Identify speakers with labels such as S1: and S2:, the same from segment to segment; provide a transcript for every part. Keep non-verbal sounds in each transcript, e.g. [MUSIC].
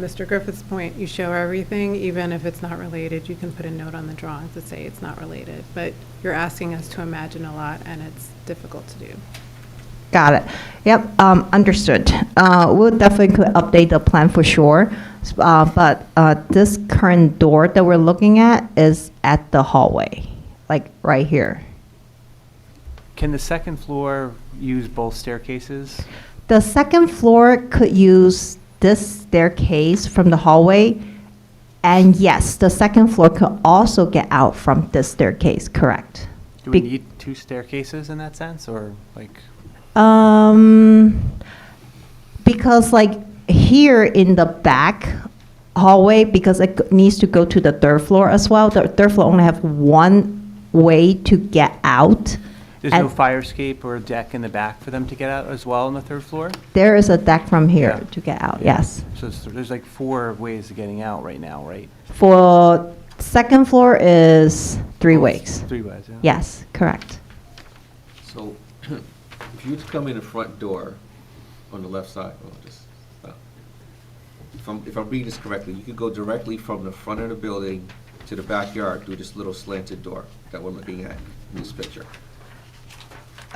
S1: Mr. Griffith's point, you show everything, even if it's not related, you can put a note on the drawing to say it's not related. But you're asking us to imagine a lot, and it's difficult to do.
S2: Got it. Yep, um, understood. Uh, We'll definitely update the plan for sure. S- uh, But uh, this current door that we're looking at is at the hallway, like right here.
S3: Can the second floor use both staircases?
S2: The second floor could use this staircase from the hallway. And yes, the second floor could also get out from this staircase, correct?
S3: Do we
S2: Be-
S3: need two staircases in that sense, or like,
S2: Um, because like here in the back hallway, because it g- needs to go to the third floor as well. The third floor only have one way to get out.
S3: there's no
S2: And
S3: fire escape or deck in the back for them to get out as well on the third floor?
S2: There is a deck from here
S3: Yeah.
S2: to get out. Yes.
S3: So it's- there's like four ways of getting out right now, right?
S2: For second floor is three ways.
S3: Oh, Three ways, yeah.
S2: Yes, correct.
S4: So [CLEARS THROAT] if you were to come in the front door on the left side, well, just stop. If I'm, if I'm reading this correctly, you could go directly from the front of the building to the backyard through this little slanted door that we're looking at in this picture.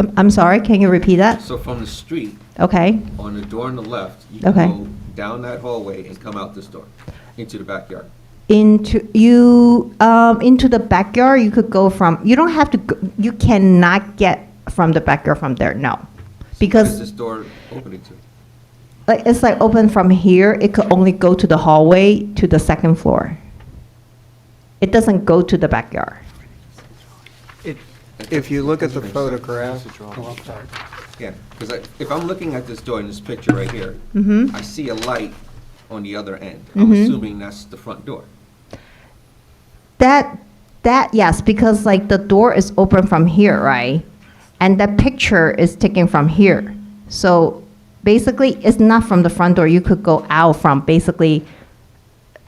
S2: I'm, I'm sorry. Can you repeat that?
S4: So from the street,
S2: Okay.
S4: on the door on the left, you can
S2: Okay.
S4: go down that hallway and come out this door into the backyard.
S2: into you um, into the backyard you could go from you don't have to go, you cannot get from the backyard from there no
S4: What is this
S2: because
S4: door opening to?
S2: like, it's like open from here it could only go to the hallway to the second floor it doesn't go to the backyard
S5: If you look at the
S4: That's what I'm saying.
S5: photograph,
S3: That's a drawing.
S5: oh, I'm sorry.
S4: Yeah, because if I'm looking at this door in this picture right here,
S2: Mhm.
S4: I see a light on the other end. I'm
S2: Mhm.
S4: assuming that's the front door.
S2: That, that, yes, because like the door is open from here, right? And that picture is taken from here. So basically, it's not from the front door. You could go out from basically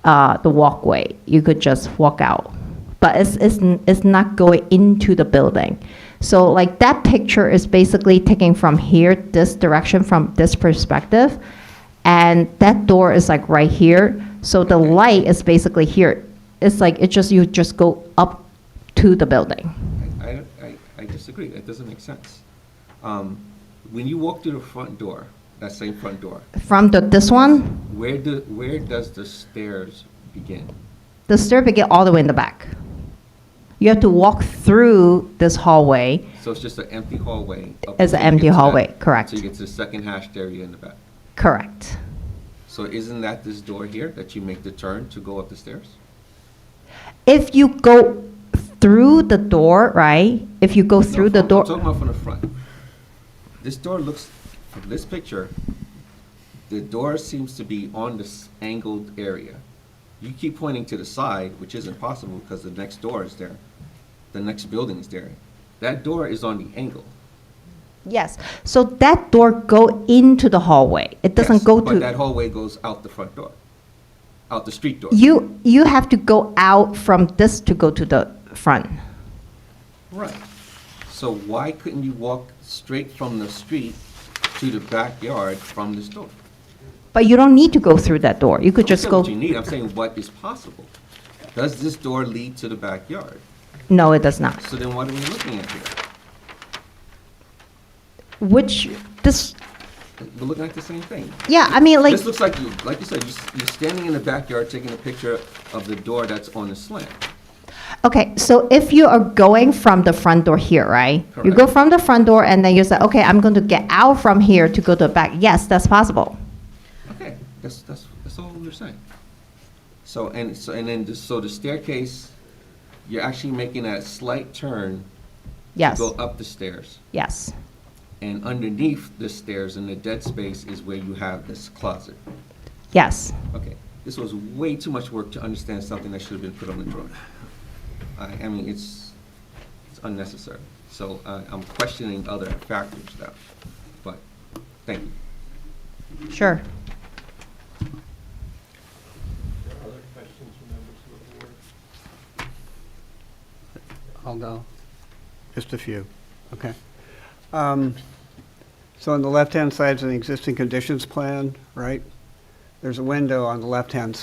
S2: uh, the walkway. You could just walk out. But it's, it's, n- it's not going into the building. So like that picture is basically taken from here, this direction, from this perspective. And that door is like right here. So the light is basically here. It's like, it just, you just go up to the building.
S4: I- I, I, I disagree, that doesn't make sense. Um, When you walk through the front door, that same front door,
S2: From the, this one,
S4: where do, where does the stairs begin?
S2: the stair begin all the way in the back. You have to walk through this hallway.
S4: So it's just an empty hallway? up
S2: It's an
S4: until you
S2: empty
S4: get to that-
S2: hallway, correct.
S4: So you get to the second hashed area in the back.
S2: Correct.
S4: So isn't that this door here that you make the turn to go up the stairs?
S2: If you go through the door, right? If you go
S4: No,
S2: through the
S4: from-
S2: door.
S4: I'm talking about from the front. This door looks, from this picture, the door seems to be on this angled area. You keep pointing to the side, which isn't possible because the next door is there. The next building is there. That door is on the angle.
S2: Yes. So that door go into the hallway. It doesn't
S4: Yes,
S2: go
S4: But that
S2: to
S4: hallway goes out the front door, out the street door.
S2: you. You have to go out from this to go to the front.
S4: Right. So why couldn't you walk straight from the street to the backyard from this door?
S2: But you don't need to go through that door. You could just
S4: I'm
S2: go.
S4: not saying what you need, I'm saying what is possible. Does this door lead to the backyard?
S2: No, it does not.
S4: So then what are we looking at here?
S2: Which this?
S4: We're looking at the same thing.
S2: Yeah. I mean, like
S4: This looks like you, like you said, you s- you're standing in the backyard taking a picture of the door that's on the slant.
S2: Okay, so if you are going from the front door here, right? You go
S4: Correct.
S2: from the front door and then you say, okay, I'm going to get out from here to go to the back. Yes, that's possible.
S4: Okay, that's, that's, that's all we're saying. So, and, so, and then, the- so the staircase, you're actually making that slight turn to
S2: Yes.
S4: go up the stairs.
S2: Yes.
S4: And underneath the stairs in the dead space is where you have this closet.
S2: Yes.
S4: Okay, this was way too much work to understand something that should have been put on the drawing. I, I mean, it's, it's unnecessary. So uh, I'm questioning other factors now, but thank you.
S2: Sure.
S5: I'll go. Just a few, okay. Um, So on the left-hand side is an existing conditions plan, right? There's a window on the left-hand